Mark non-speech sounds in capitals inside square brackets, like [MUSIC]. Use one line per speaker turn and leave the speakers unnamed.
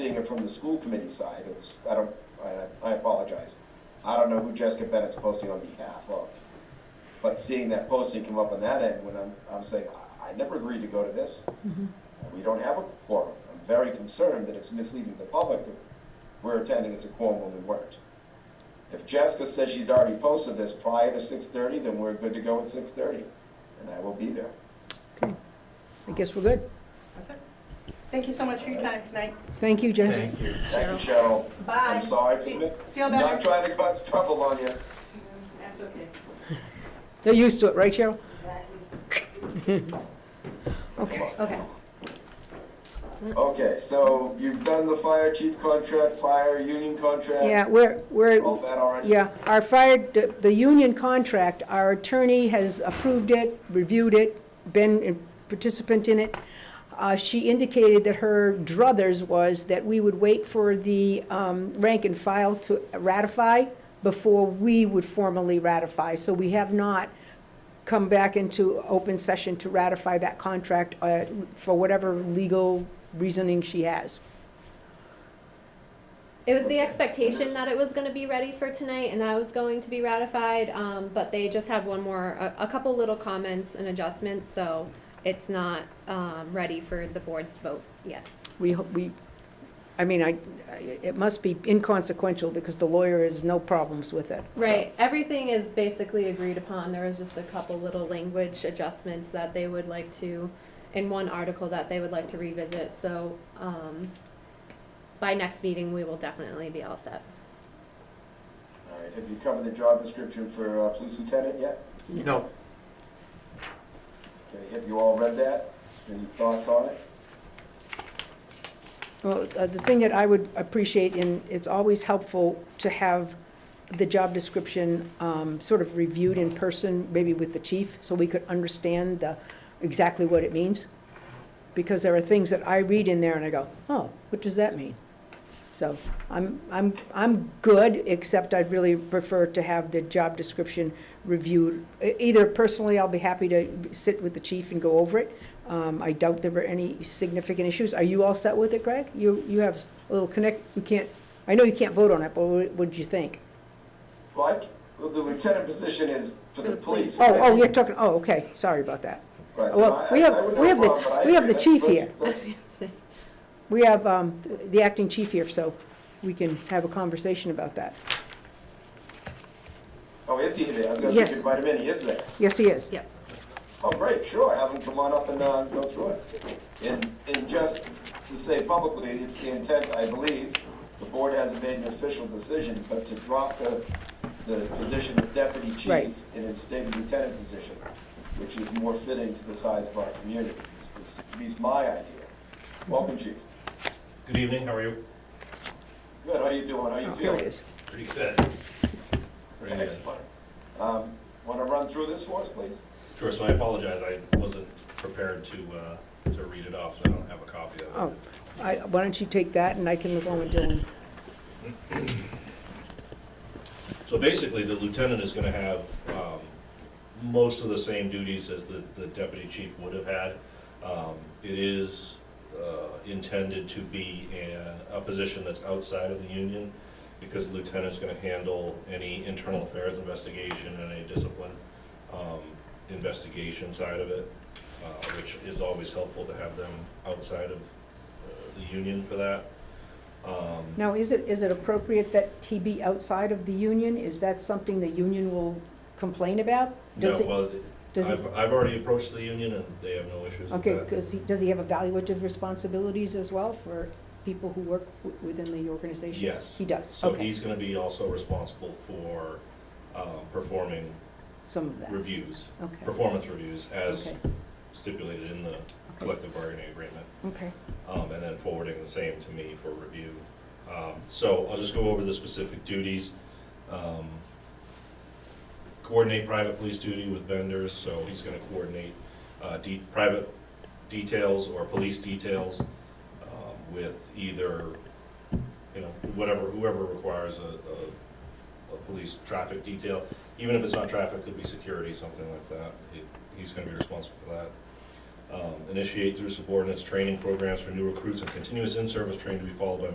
it from the school committee side, of the s- I don't, I, I apologize. I don't know who Jessica Bennett's posting on behalf of, but seeing that posting come up on that end, when I'm, I'm saying, I, I never agreed to go to this.
Mm-hmm.
We don't have a quorum. I'm very concerned that it's misleading the public that we're attending as a quorum when we weren't. If Jessica says she's already posted this prior to six thirty, then we're good to go at six thirty, and I will be there.
Okay. I guess we're good.
That's it. Thank you so much for your time tonight.
Thank you, Jess.
Thank you.
Thank you, Cheryl.
Bye.
I'm sorry
Fe-
for the-
feel
Not
better.
trying to cause trouble on you.
That's okay.
They're used to it, right, Cheryl? [LAUGHS] Okay,
Come
okay.
Okay, so you've done the fire chief contract, fire union contract.
Yeah, we're, we're,
All that already?
yeah, our fire, the the union contract, our attorney has approved it, reviewed it, been a participant in it. Uh, She indicated that her druthers was that we would wait for the um, rank and file to ratify before we would formally ratify. So we have not come back into open session to ratify that contract uh, for whatever legal reasoning she has.
It was the expectation that it was going to be ready for tonight and that it was going to be ratified, um, but they just had one more, a, a couple little comments and adjustments, so it's not, um, ready for the board's vote yet.
We, ho- we, I mean, I, I- it must be inconsequential because the lawyer has no problems with it.
Right, everything is basically agreed upon, there was just a couple little language adjustments that they would like to, in one article that they would like to revisit, so, um, by next meeting, we will definitely be all set.
All right, have you covered the job description for uh, police lieutenant yet?
No,
Okay, have you all read that? Any thoughts on it?
Well, uh, the thing that I would appreciate, and it's always helpful to have the job description um, sort of reviewed in person, maybe with the chief, so we could understand the, exactly what it means. Because there are things that I read in there and I go, oh, what does that mean? So I'm, I'm, I'm good, except I'd really prefer to have the job description reviewed. E- Either personally, I'll be happy to sit with the chief and go over it. Um, I doubt there were any significant issues. Are you all set with it, Greg? You, you have a little connect, you can't, I know you can't vote on it, but what what'd you think?
Like, well, the lieutenant position is for the police.
Oh, oh,
right?
you're talking, oh, okay, sorry about that.
Right, so
well,
I-
we
I-
have-
I would
we
have
have the-
a problem, but I
we have
agree.
the
Let's- let's-
chief
let's-
We have um, the acting chief here, so we can have a conversation about that.
Oh, is he there? I was gonna say,
Yes.
you invite him in, he is there.
Yes, he is.
[LAUGHS] Yep.
Oh, great, sure, have him come on up and, uh, go through it. And, and just to say publicly, it's the intent, I believe, the board hasn't made an official decision, but to drop the, the position of deputy chief
Right.
and instead of lieutenant position, which is more fitting to the size of our community, is- is at least my idea. Welcome, chief.
Good evening, how are you?
Good, how you doing, how you
Oh, Here he
feeling?
is.
Pretty good. Pretty good.
Excellent. Um, wanna run through this for us, please?
Sure, so I apologize, I wasn't prepared to, uh, to read it off, so I don't have a copy of
Oh,
it.
I- why don't you take that, and I can go and do it.
So basically, the lieutenant is gonna have, um, most of the same duties as the, the deputy chief would have had. Um, it is, uh, intended to be an, a position that's outside of the union, because the lieutenant's gonna handle any internal affairs investigation and any discipline, um, investigation side of it, uh, which is always helpful to have them outside of, uh, the union for that. Um,
Now, is it, is it appropriate that he be outside of the union? Is that something the union will complain about?
no,
Does it?
well,
Does it,
I've, I've already approached the union and they have no issues with
okay,
that.
'cause he, does he have evaluative responsibilities as well for people who work w- within the organization?
Yes.
He does,
So
okay,
he's gonna be also responsible for, um, performing
some of that,
reviews,
okay,
performance reviews as
okay,
stipulated in the collective bargaining agreement.
okay.
um, and then forwarding the same to me for review. Um, So I'll just go over the specific duties. Um, Coordinate private police duty with vendors, so he's gonna coordinate uh, de- private details or police details um, with either, you know, whatever, whoever requires a, a, a police traffic detail. Even if it's not traffic, it could be security, something like that. He- He's gonna be responsible for that um, initiate through subordinates training programs for new recruits and continuous in-service training to be followed by